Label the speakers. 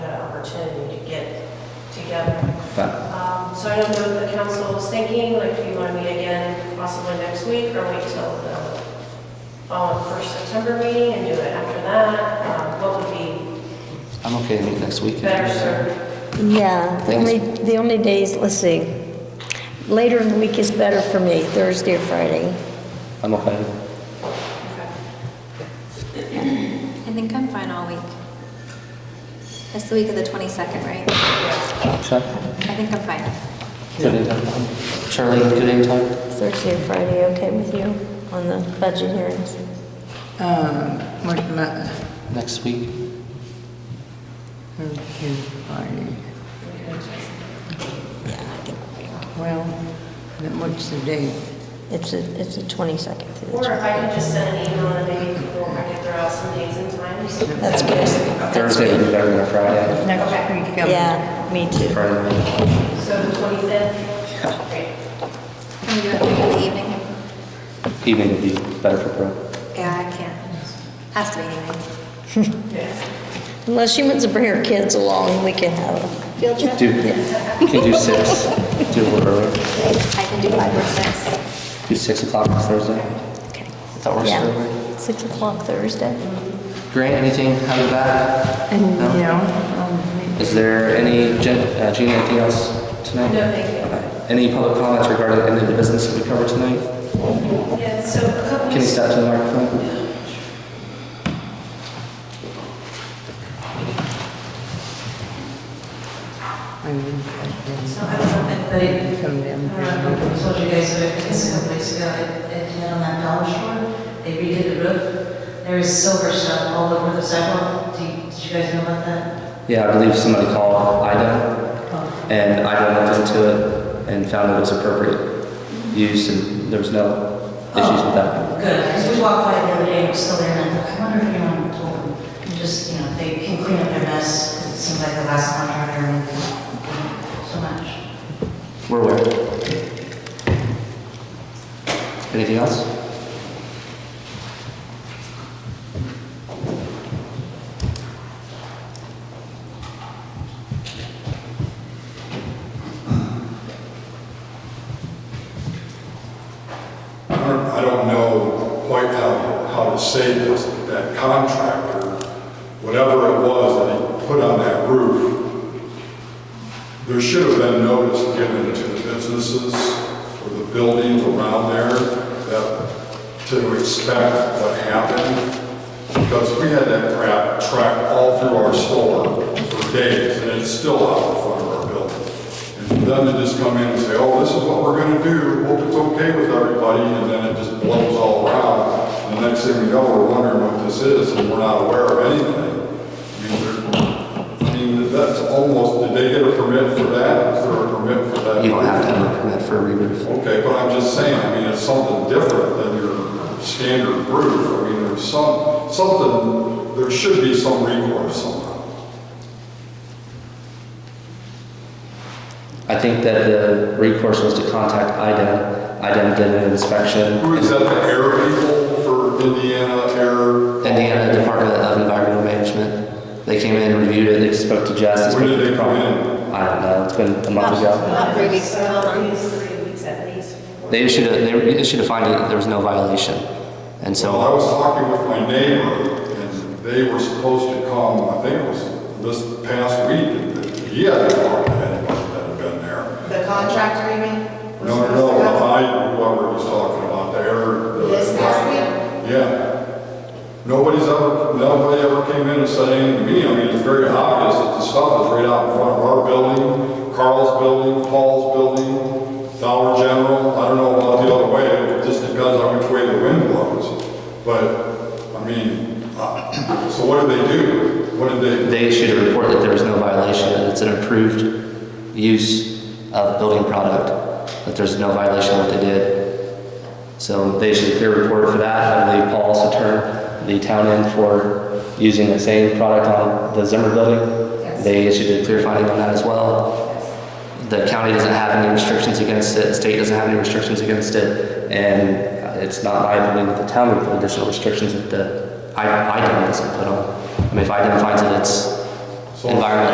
Speaker 1: together.
Speaker 2: Fine.
Speaker 1: Um, So I don't know what the council is thinking, like, do you want to meet again possibly next week, or wait till the following first September meeting and do it after that? Um, What would be
Speaker 2: I'm okay to meet next week.
Speaker 1: better served?
Speaker 3: Yeah, the only, the only days, let's see, later in the week is better for me, Thursday or Friday.
Speaker 2: I'm okay.
Speaker 4: I think I'm fine all week. That's the week of the 22nd, right?
Speaker 2: Sure.
Speaker 4: I think I'm fine.
Speaker 2: Good anytime. Charlie, good anytime?
Speaker 3: Thursday or Friday, okay with you on the budget hearings?
Speaker 5: Um, what about,
Speaker 2: Next week?
Speaker 5: okay, party? Well, then what's the date?
Speaker 3: It's a, it's a 22nd through the
Speaker 1: Or if I could just send an email and maybe people, I could throw out some dates and times.
Speaker 3: That's good.
Speaker 2: Thursday would be better than a Friday.
Speaker 5: Next week, um,
Speaker 3: Yeah, me too.
Speaker 2: Friday night.
Speaker 1: So the 25th? Great.
Speaker 4: Can we do it in the evening?
Speaker 2: Evening would be better for Brooke.
Speaker 4: Yeah, I can't. Has to be evening.
Speaker 3: Unless she wants to bring her kids along, we can have them.
Speaker 4: Field trip?
Speaker 2: Do, you can do six, do a little early.
Speaker 4: I can do five or six.
Speaker 2: Do six o'clock on Thursday.
Speaker 3: Okay.
Speaker 2: That works for
Speaker 3: Yeah.
Speaker 2: everybody.
Speaker 3: Six o'clock Thursday.
Speaker 2: Grant, anything out of that?
Speaker 5: And,
Speaker 2: No?
Speaker 5: you know, um,
Speaker 2: Is there any, Jen, uh, Gina, anything else tonight?
Speaker 1: No, thank you.
Speaker 2: Okay. Any public comments regarding any of the business that we covered tonight?
Speaker 1: Yeah, so a couple
Speaker 2: Can you
Speaker 1: weeks,
Speaker 2: step to the microphone?
Speaker 5: I mean, I
Speaker 6: So I don't know if they,
Speaker 5: didn't come down.
Speaker 6: I don't know if I told you guys, but it's a couple weeks ago, at at, you know, on that Dollar Store, they redid the roof. There is silver stuff all over the sidewalk. Do you- Did you guys know about that?
Speaker 2: Yeah, I believe somebody called Ida
Speaker 6: Oh,
Speaker 2: And I looked into it and found it was appropriate use and there was no issues with that.
Speaker 6: Good, because we walked by the other day, it was still there, and I thought, I wonder if anyone told them, just, you know, they can clean up their mess. 'cause It seems like the last contractor, and so much.
Speaker 2: We're aware. Anything else?
Speaker 7: I don't- I don't know quite how, how to say this, but that contractor, whatever it was that he put on that roof, there should have been notice given to the businesses or the buildings around there that, to expect what happened. Because we had that crap tracked all through our store for days, and it's still out in front of our building. And for them to just come in and say, oh, this is what we're gonna do, hope it's okay with everybody, and then it just blows all around. And the next thing we know, we're wondering what this is, and we're not aware of anything. I mean, they're- I mean, that's almost, did they get a permit for that? Is there a permit for that?
Speaker 2: You don't have to have a permit for a re-roof.
Speaker 7: Okay, but I'm just saying, I mean, it's something different than your standard roof. I mean, there's some, something, there should be some recourse somehow.
Speaker 2: I think that the recourse was to contact IDEM. IDEM did an inspection.
Speaker 7: Who is that, the air people for Indiana Air?
Speaker 2: Indiana Department of Environmental Management. They came in, reviewed it, they spoke to Jess. spoke
Speaker 7: When did
Speaker 2: to
Speaker 7: they come
Speaker 2: Carl.
Speaker 7: in?
Speaker 2: I don't know, it's been a month ago.
Speaker 4: About three weeks
Speaker 1: so
Speaker 4: ago.
Speaker 1: at least three weeks at least.
Speaker 2: They issued a, they issued a finding that there was no violation. And so.
Speaker 7: Well, I was talking with my neighbor, and they were supposed to come, I think it was this past week, and he hadn't talked to anybody that had been there.
Speaker 8: The contractor, you mean?
Speaker 7: No, no, no, I, whoever was talking about there.
Speaker 8: This past week?
Speaker 7: Yeah. Nobody's ever, nobody ever came in and said anything to me. I mean, it's very obvious that the stuff is right out in front of our building, Carl's building, Paul's building, Dollar General. I don't know about the other way, it just depends on which way the wind blows. But, I mean, uh, so what did they do? What did they?
Speaker 2: They issued a report that there was no violation, that it's an approved use of building product, that there's no violation of what they did. So they issued a clear report for that. I believe Paul also turned the town in for using the same product on the Zimmer building. They issued a clear finding on that as well. The county doesn't have any restrictions against it, the state doesn't have any restrictions against it, and it's not my opinion that the town would put additional restrictions that the I- IDEM doesn't put on. I mean, if IDEM finds that it's
Speaker 7: So-
Speaker 2: environmental